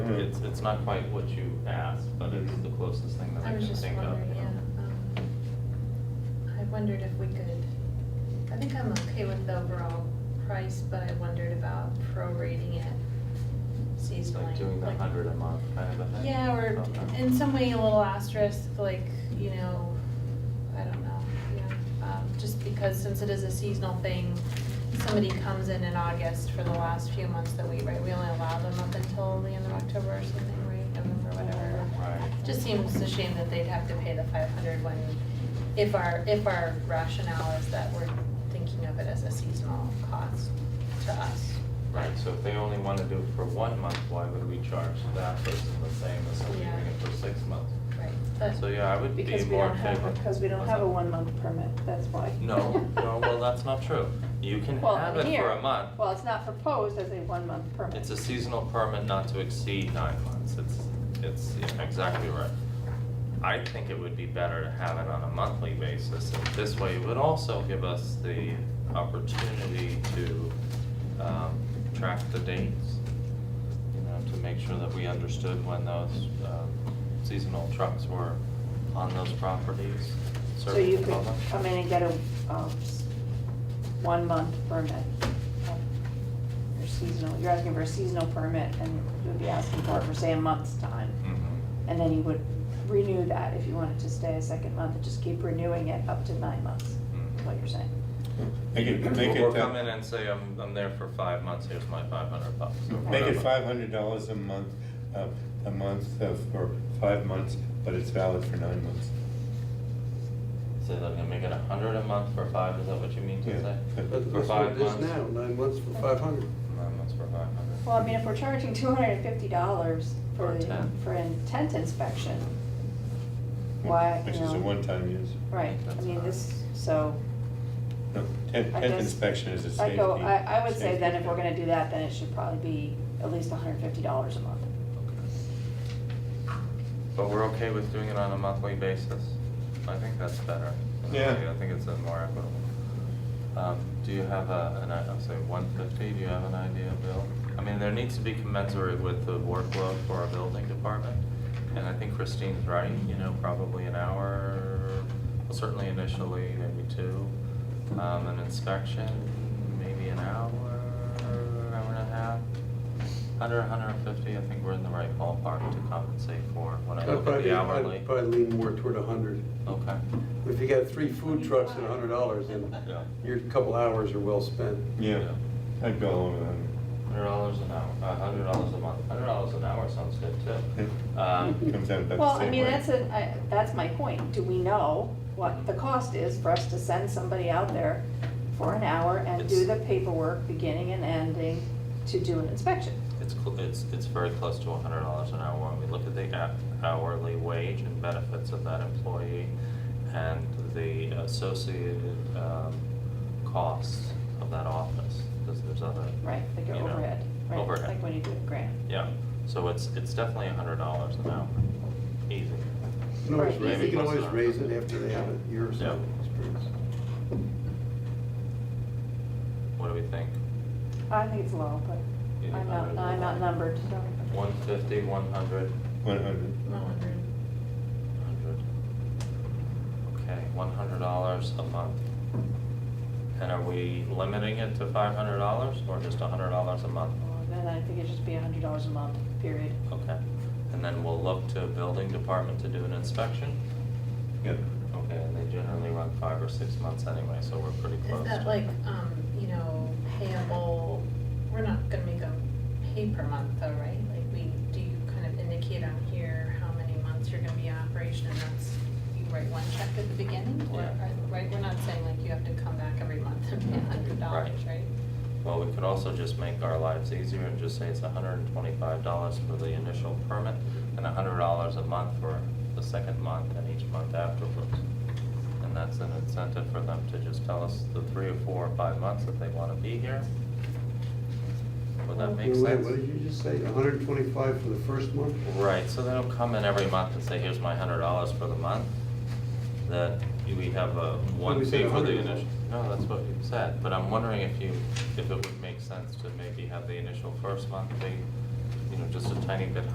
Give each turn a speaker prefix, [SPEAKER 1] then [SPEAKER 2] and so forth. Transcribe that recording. [SPEAKER 1] Yeah.
[SPEAKER 2] It's, it's not quite what you asked, but it's the closest thing that
[SPEAKER 3] I
[SPEAKER 2] I
[SPEAKER 3] was
[SPEAKER 2] can
[SPEAKER 3] just
[SPEAKER 2] think of.
[SPEAKER 3] wondering, yeah. um, I wondered if we could, I think I'm okay with the overall price, but I wondered about prorating it seasonally.
[SPEAKER 2] Like doing the
[SPEAKER 3] like-
[SPEAKER 2] hundred a month kind of a thing.
[SPEAKER 3] Yeah, or
[SPEAKER 2] Okay.
[SPEAKER 3] in some way a little asterisk, like, you know, I don't know, yeah. Um, Just because since it is a seasonal thing, somebody comes in in August for the last few months that we, right, we only allow them up until the end of October or something, right, November, whatever.
[SPEAKER 2] Right.
[SPEAKER 3] Just seems a shame that they'd have to pay the five hundred when, if our, if our rationale is that we're thinking of it as a seasonal cost to us.
[SPEAKER 2] Right, so if they only want to do it for one month, why would we charge that person the same as somebody
[SPEAKER 3] Yeah.
[SPEAKER 2] doing it for six months?
[SPEAKER 3] Right. But-
[SPEAKER 2] So, yeah, I would be
[SPEAKER 4] Because we
[SPEAKER 2] more
[SPEAKER 4] don't have,
[SPEAKER 2] favorable.
[SPEAKER 4] because we don't
[SPEAKER 2] What's
[SPEAKER 4] have a
[SPEAKER 2] that?
[SPEAKER 4] one-month permit, that's why.
[SPEAKER 2] No, no, well, that's not true. You can
[SPEAKER 4] Well,
[SPEAKER 2] have
[SPEAKER 4] in
[SPEAKER 2] it for
[SPEAKER 4] here.
[SPEAKER 2] a month.
[SPEAKER 4] Well, it's not proposed as a one-month permit.
[SPEAKER 2] It's a seasonal permit not to exceed nine months. It's, it's yeah, exactly right. I think it would be better to have it on a monthly basis. And This way, it would also give us the opportunity to um, track the dates, you know, to make sure that we understood when those um, seasonal trucks were on those properties
[SPEAKER 4] So you
[SPEAKER 2] serving the
[SPEAKER 4] could
[SPEAKER 2] public.
[SPEAKER 4] come in and get a, um, s- one-month permit. Your seasonal, you're asking for a seasonal permit, and you'd be asking for it for, say, a month's time.
[SPEAKER 2] Mhm.
[SPEAKER 4] And then you would renew that if you wanted to stay a second month, and just keep renewing it up to nine months, is what you're saying.
[SPEAKER 1] Make it, make
[SPEAKER 2] Or
[SPEAKER 1] it,
[SPEAKER 2] come in
[SPEAKER 1] uh,
[SPEAKER 2] and say, I'm, I'm there for five months, here's my five hundred bucks. or
[SPEAKER 1] make it
[SPEAKER 2] whatever.
[SPEAKER 1] five hundred dollars a month, uh, a month uh, for five months, but it's valid for nine months.
[SPEAKER 2] Say that again, make it a hundred a month for five, is that what you mean to
[SPEAKER 1] Yeah.
[SPEAKER 2] say?
[SPEAKER 1] But
[SPEAKER 2] For
[SPEAKER 5] That- That's what
[SPEAKER 2] five
[SPEAKER 5] it is
[SPEAKER 2] months?
[SPEAKER 5] now, nine months for five hundred.
[SPEAKER 2] Nine months for five hundred.
[SPEAKER 4] Well, I mean, if we're charging two hundred and fifty dollars
[SPEAKER 2] For
[SPEAKER 4] for,
[SPEAKER 2] a
[SPEAKER 4] the-
[SPEAKER 2] tent.
[SPEAKER 4] for a tent inspection, why,
[SPEAKER 1] Which
[SPEAKER 4] you
[SPEAKER 1] is a
[SPEAKER 4] know,
[SPEAKER 1] one-time use.
[SPEAKER 4] Right, I
[SPEAKER 2] That's
[SPEAKER 4] mean,
[SPEAKER 2] fine.
[SPEAKER 4] this, so,
[SPEAKER 1] No, tent,
[SPEAKER 4] I
[SPEAKER 1] tent
[SPEAKER 4] guess-
[SPEAKER 1] inspection is a
[SPEAKER 4] I
[SPEAKER 1] safety.
[SPEAKER 4] go, I, I would say
[SPEAKER 1] safety
[SPEAKER 4] then if we're
[SPEAKER 1] thing.
[SPEAKER 4] gonna do that, then it should probably be at least hundred and fifty dollars a month.
[SPEAKER 2] But we're okay with doing it on a monthly basis? I think that's better.
[SPEAKER 1] Yeah.
[SPEAKER 2] I think it's uh, more equitable. Um, do you have a, an, i- I'll say one fifty, do you have an idea, Bill? I mean, there needs to be commensurate with the workload for our building department. And I think Christine's right, you know, probably an hour, well, certainly initially, maybe two. Um, an inspection, maybe an hour, hour and a half. Hundred, hundred and fifty, I think we're in the right ballpark to compensate for when I
[SPEAKER 5] I'd
[SPEAKER 2] look at
[SPEAKER 5] probably,
[SPEAKER 2] the hourly.
[SPEAKER 5] I'd probably lean more toward a hundred.
[SPEAKER 2] Okay,
[SPEAKER 5] If you got three food trucks at a hundred dollars, then
[SPEAKER 2] yeah.
[SPEAKER 5] your couple hours are well spent.
[SPEAKER 1] Yeah, I'd go along with that.
[SPEAKER 2] Hundred dollars an hour, a hundred dollars a month, hundred dollars an hour sounds good too. Um,
[SPEAKER 1] Comes out about the same way.
[SPEAKER 4] Well, I mean, that's a, I, that's my point, do we know what the cost is for us to send somebody out there for an hour and do the
[SPEAKER 2] It's-
[SPEAKER 4] paperwork, beginning and ending, to do an inspection?
[SPEAKER 2] It's, cl- it's, it's very close to hundred dollars an hour when we look at the a- hourly wage and benefits of that employee and the associated, um, costs of that office, because there's other.
[SPEAKER 4] Right, like
[SPEAKER 2] you
[SPEAKER 4] an
[SPEAKER 2] know,
[SPEAKER 4] overhead, right?
[SPEAKER 2] Overhead.
[SPEAKER 4] Like when you do a grant.
[SPEAKER 2] Yeah, so it's, it's definitely a hundred dollars an hour, easy.
[SPEAKER 5] You can always
[SPEAKER 4] Right.
[SPEAKER 5] raise- You can
[SPEAKER 2] Maybe.
[SPEAKER 5] always raise it after they have a year or so
[SPEAKER 2] Yeah.
[SPEAKER 5] experience.
[SPEAKER 2] What do we think?
[SPEAKER 4] I think it's low, but
[SPEAKER 2] Yeah,
[SPEAKER 4] I'm not,
[SPEAKER 2] I
[SPEAKER 4] I'm
[SPEAKER 2] would-
[SPEAKER 4] not numbered, so.
[SPEAKER 2] One fifty, one hundred?
[SPEAKER 1] One hundred.
[SPEAKER 3] Not wondering.
[SPEAKER 2] Hundred. Okay, one hundred dollars a month. And are we limiting it to five hundred dollars or just a hundred dollars a month?
[SPEAKER 4] Well, Then I think it'd just be a hundred dollars a month, period.
[SPEAKER 2] Okay, and then we'll look to building department to do an inspection?
[SPEAKER 1] Yeah.
[SPEAKER 2] Okay, and they generally run five or six months anyway, so we're pretty close.
[SPEAKER 3] Is that
[SPEAKER 2] to-
[SPEAKER 3] like, um, you know, payable, we're not gonna make them pay per month though, right? Like we, do you kind of indicate on here how many months you're gonna be in operation and that's, you write one check at the beginning? Or,
[SPEAKER 2] Yeah.
[SPEAKER 3] or- right, we're not saying like you have to come back every month and pay a hundred dollars,
[SPEAKER 2] Right.
[SPEAKER 3] right?
[SPEAKER 2] Well, we could also just make our lives easier and just say it's hundred and twenty-five dollars for the initial permit and hundred dollars a month for the second month and each month afterwards. And that's an incentive for them to just tell us the three or four or five months that they wanna be here. Would that make
[SPEAKER 5] Wait,
[SPEAKER 2] sense?
[SPEAKER 5] wait, What did you just say, hundred and twenty-five for the first month?
[SPEAKER 2] Right, so they don't come in every month and say, here's my hundred dollars for the month, that we have a one
[SPEAKER 5] we said
[SPEAKER 2] fee for the
[SPEAKER 5] 100.
[SPEAKER 2] initial. No, that's what you said, but I'm wondering if you, if it would make sense to maybe have the initial first month be, you know, just a tiny bit